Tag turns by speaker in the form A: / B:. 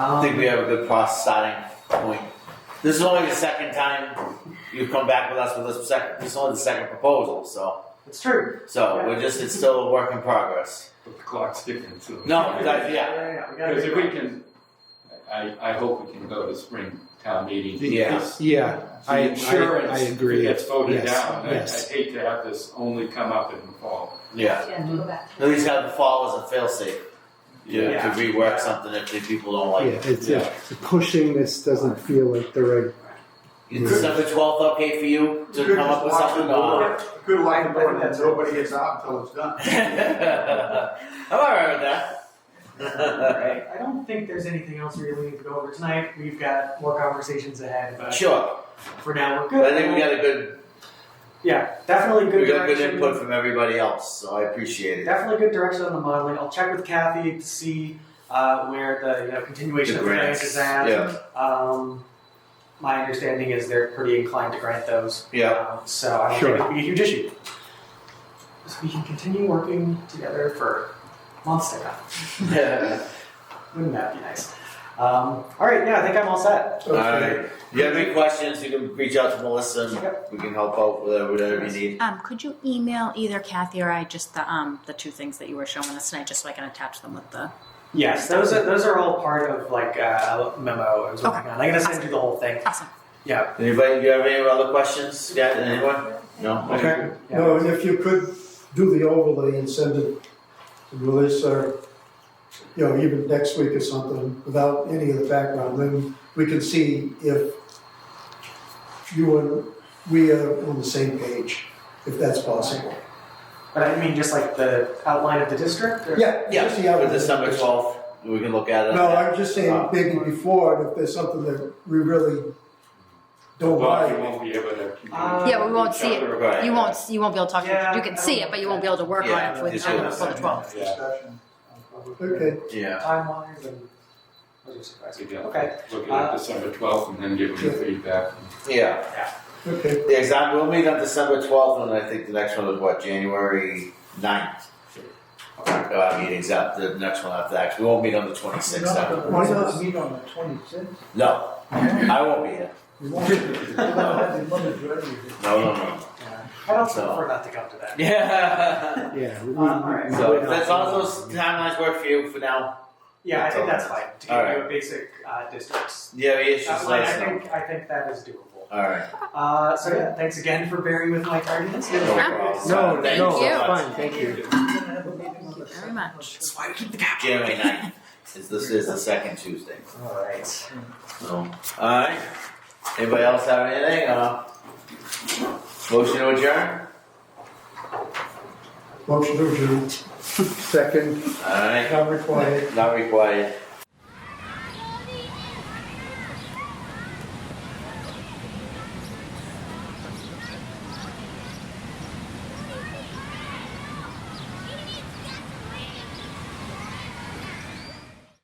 A: I don't think we have a good process starting point. This is only the second time you've come back with us with this second, this is only the second proposal, so,
B: It's true.
A: so we're just, it's still a work in progress.
C: But the clock's ticking, so.
A: No, that- yeah,
B: yeah, we gotta
C: Because
B: get
C: if we
B: going.
C: can, I, I hope we can go to spring town meeting.
A: Yeah.
D: Yeah, I- I- I
C: The insurance, if
D: agree.
C: it gets voted
D: Yes,
C: down, I-
D: yes.
C: I'd hate to have this only come up in the fall.
A: yeah.
E: Yeah, to go back.
A: At least have the fall as a fail-safe, you know,
B: Yeah.
A: to rework something if the people don't like
D: yeah, it's,
A: it.
D: uh, pushing this doesn't feel like the right
A: Is December twelfth okay for you to
F: Good
A: come up with
F: watch
A: something?
F: the
A: or-
F: board. Good luck
B: I
F: with
B: think
F: board,
B: that's
F: that
B: it.
F: nobody gets out until it's done.
A: I'm alright with that.
B: Alright, I don't think there's anything else we really need to go over tonight. We've got more conversations ahead, but
A: Sure,
B: for now we're good.
A: but I think we got a good,
B: yeah, definitely good
A: we got good
B: direction.
A: input from everybody else, so I appreciate it.
B: Definitely good direction on the modeling. I'll check with Kathy to see uh, where the you know, continuation
A: The
B: of the grants
A: grants,
B: is at.
A: yeah,
B: Um, my understanding is they're pretty inclined to grant those.
A: yeah,
B: Um, so I don't
D: Sure.
B: think it'll be a huge issue. So we can continue working together for months to come. Wouldn't that be nice? Um, all right, yeah, I think I'm all set.
A: alright. If you have any questions, you can reach out to Melissa and we can help out with whatever you
G: Uh,
A: need.
H: Um, could you email either Kathy or I just the um, the two things that you were showing us tonight, just so I can attach them with the.
B: Yes, those are those are all part of like uh, a memo I was working on. I'm gonna send you the whole thing.
H: Awesome.
A: Anybody, do you have any other questions? Yeah, anyone? No? Okay.
B: Yeah.
G: No, and if you could do the overlay and send it to Melissa, you know, even next week or something, without any of the background, then we can see if you and we are on the same page, if that's possible.
B: But I mean, just like the outline of the district. Or?
G: Yeah,
A: Yeah,
G: just the outline.
A: for December twelfth, we can look at it.
G: No, I'm just saying, maybe before, if there's something that we really don't
C: Well,
G: like.
C: you won't be able to.
B: Uh,
H: Yeah, we won't see it.
A: Right.
H: You won't you won't be able to talk.
B: Yeah,
H: you can see it, but you won't be able to work
A: Yeah,
H: on it with,
A: it's
H: for
A: good.
H: the twelve.
C: Yeah.
F: Discussion.
G: Okay,
A: Yeah,
B: Time wise and. those are surprising. Okay.
C: Look
B: Uh,
C: at December twelfth and then give them the feedback.
A: yeah,
G: okay.
A: yeah, exactly, we'll meet on December twelfth, and I think the next one is what, January ninth? Uh, meetings up, the next one after that, 'cause we won't meet on the twenty-sixth,
F: Why not meet on the twenty-sixth?
A: no, I won't be here,
F: We won't, we won't have the money for everything.
A: no, no, no.
B: I don't
A: So-
B: prefer not to come to that.
A: Yeah.
D: Yeah. we-
B: Uh, all right.
A: So, if that's all those timelines work for you for now,
B: Yeah, I think that's fine. To give
A: All right.
B: you a basic uh, districts
A: yeah, it's just
B: outline,
A: let
B: I
A: us know.
B: think I think that is doable.
A: Alright,
B: Uh, so yeah, thanks again for bearing with my tardiness.
A: no problem.
D: No,
A: Thank
D: no,
A: you so
H: you.
A: much.
D: fine, thank you.
F: We're gonna have a meeting on
H: Thank
F: the
H: you very
F: second.
H: much.
B: That's why we keep the cap.
A: January ninth, is this is the second Tuesday,
B: All right.
A: so, alright, anybody else have anything, uh? Motion to adjourn,
G: Motion to adjourn. Second,
A: alright,
G: not required.
A: not required,